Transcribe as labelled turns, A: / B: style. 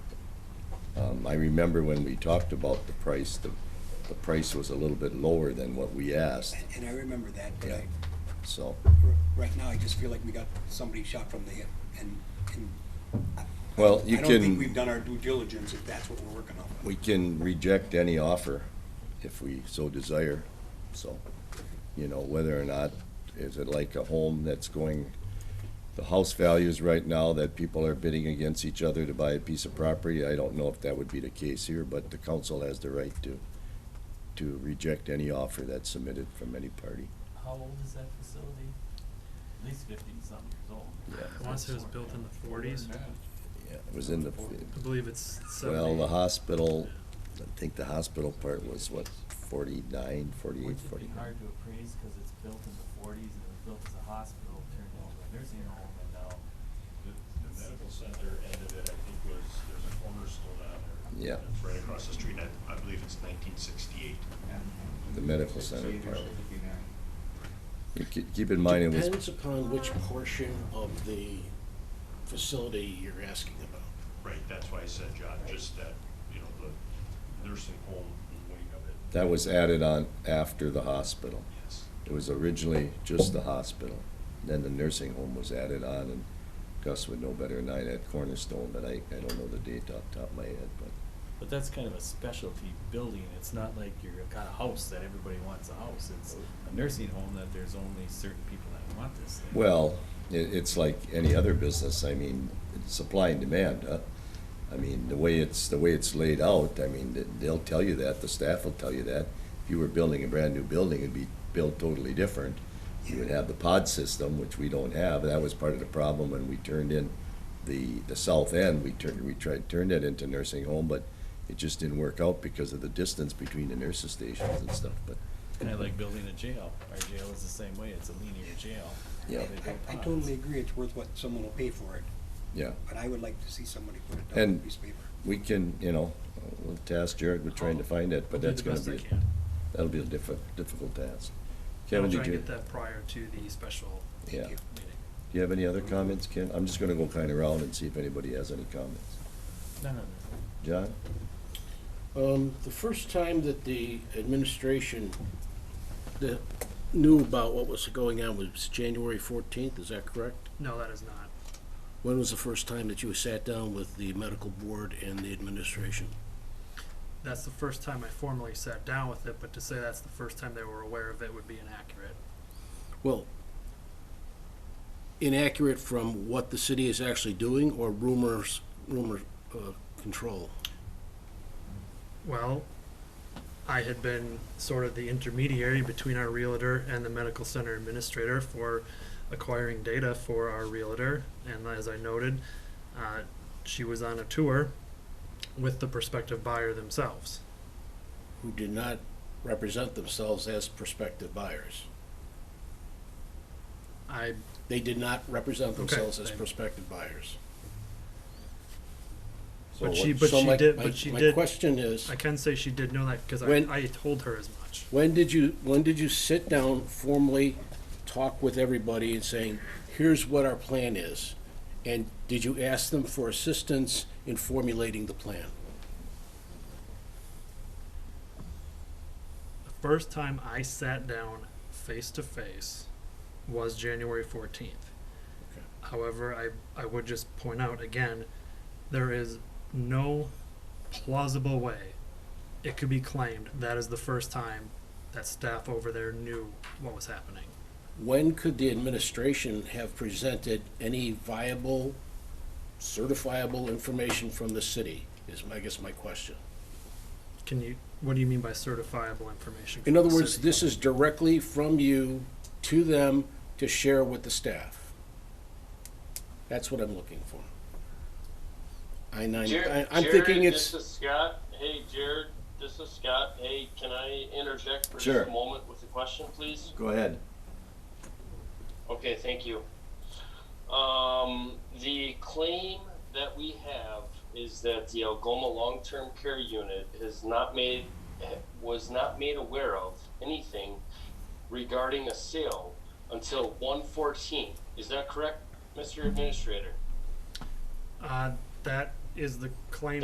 A: Um, I remember when we talked about the price, the, the price was a little bit lower than what we asked,
B: And- And I remember that, but I,
A: so.
B: r- right now, I just feel like we got somebody shot from the hip, and, and
A: Well, you
B: I don't think we've
A: can,
B: done our due diligence if that's what we're working on.
A: we can reject any offer if we so desire, so, you know, whether or not, is it like a home that's going, the house values right now that people are bidding against each other to buy a piece of property, I don't know if that would be the case here, but the council has the right to, to reject any offer that's submitted from any party.
C: How old is that facility? At least fifty something years old.
A: Yeah.
D: I want to say it was built in the forties.
A: Yeah, it was in the,
D: I believe it's seventy.
A: well, the hospital, I think the hospital part was what, forty-nine, forty-eight,
C: Which would be
A: forty-nine?
C: hard to appraise because it's built in the forties and it was built as a hospital, turned into a nursing home and now.
E: The the medical center end of it, I think, was, there's a cornerstone on there.
A: Yeah.
E: It's right across the street, and I, I believe it's nineteen sixty-eight.
A: The medical center part. You ke- Keep in mind, it was,
F: Depends upon which portion of the facility you're asking about.
E: Right, that's why I said, John, just that, you know, the nursing home wing of it.
A: that was added on after the hospital.
E: Yes.
A: It was originally just the hospital, then the nursing home was added on, and Gus would know better than I, that cornerstone, but I, I don't know the date off the top of my head, but,
C: But that's kind of a specialty building. It's not like you're got a house that everybody wants a house. It's a nursing home that there's only certain people that want this thing.
A: well, it, it's like any other business, I mean, it's supply and demand, huh? I mean, the way it's, the way it's laid out, I mean, th- they'll tell you that, the staff will tell you that. If you were building a brand-new building, it'd be built totally different. You would have the pod system, which we don't have, that was part of the problem when we turned in the, the south end, we turned, we tried, turned it into nursing home, but it just didn't work out because of the distance between the nurses' stations and stuff, but,
C: Kind of like building a jail. Our jail is the same way. It's a linear jail.
A: Yeah.
C: They build
B: I, I
C: pods.
B: totally agree, it's worth what someone will pay for it,
A: yeah.
B: but I would like to see somebody put it down on a
A: And-
B: piece of paper.
A: We can, you know, we'll task Jared with trying to find it,
D: I'll
A: but
D: Oh, do
A: that's
D: the
A: gonna
D: best I
A: be,
D: can.
A: that'll be a diffi- difficult task.
D: I'll
A: Kevin,
D: try
A: did
D: and
A: you?
D: get that prior to the special
A: Yeah.
B: Thank you.
A: Do
D: meeting.
A: you have any other comments, Ken? I'm just gonna go kind of round and see if anybody has any comments.
C: No, no, no.
A: John?
F: Um, the first time that the administration that knew about what was going on was January fourteenth, is that correct?
D: No, that is not.
F: When was the first time that you sat down with the medical board and the administration?
D: That's the first time I formally sat down with it, but to say that's the first time they were aware of it would be inaccurate.
F: Well, inaccurate from what the city is actually doing or rumors, rumor, uh, control?
D: Well, I had been sort of the intermediary between our realtor and the medical center administrator for acquiring data for our realtor. And as I noted, uh, she was on a tour with the prospective buyer themselves.
F: who did not represent themselves as prospective buyers.
D: I
F: They did not represent themselves as
D: thank-
F: prospective buyers.
A: So
D: But
A: what-
D: she, but
F: So
D: she
F: my-
D: did,
F: my-
D: but she
F: My
D: did,
F: question is,
D: I can say she did know that because
F: When-
D: I, I told her as much.
F: when did you, when did you sit down formally, talk with everybody and saying, here's what our plan is? And did you ask them for assistance in formulating the plan?
D: The first time I sat down face to face was January fourteenth.
F: Okay.
D: However, I, I would just point out again, there is no plausible way it could be claimed that is the first time that staff over there knew what was happening.
F: When could the administration have presented any viable, certifiable information from the city, is, I guess, my question.
D: Can you, what do you mean by certifiable information?
F: In
D: from
F: other
D: the
F: words,
D: city?
F: this is directly from you to them to share with the staff. That's what I'm looking for. I nine, I-
G: Jared,
F: I'm thinking
G: Jared,
F: it's,
G: This is Scott. Hey, Jared. This is Scott. Hey, can I interject for
A: Sure.
G: just a moment with a question, please?
A: Go ahead.
G: Okay, thank you. Um, the claim that we have is that the Algoma Long-Term Care Unit has not made, was not made aware of anything regarding a sale until 114. Is that correct, Mr. Administrator?
D: Uh, that is the claim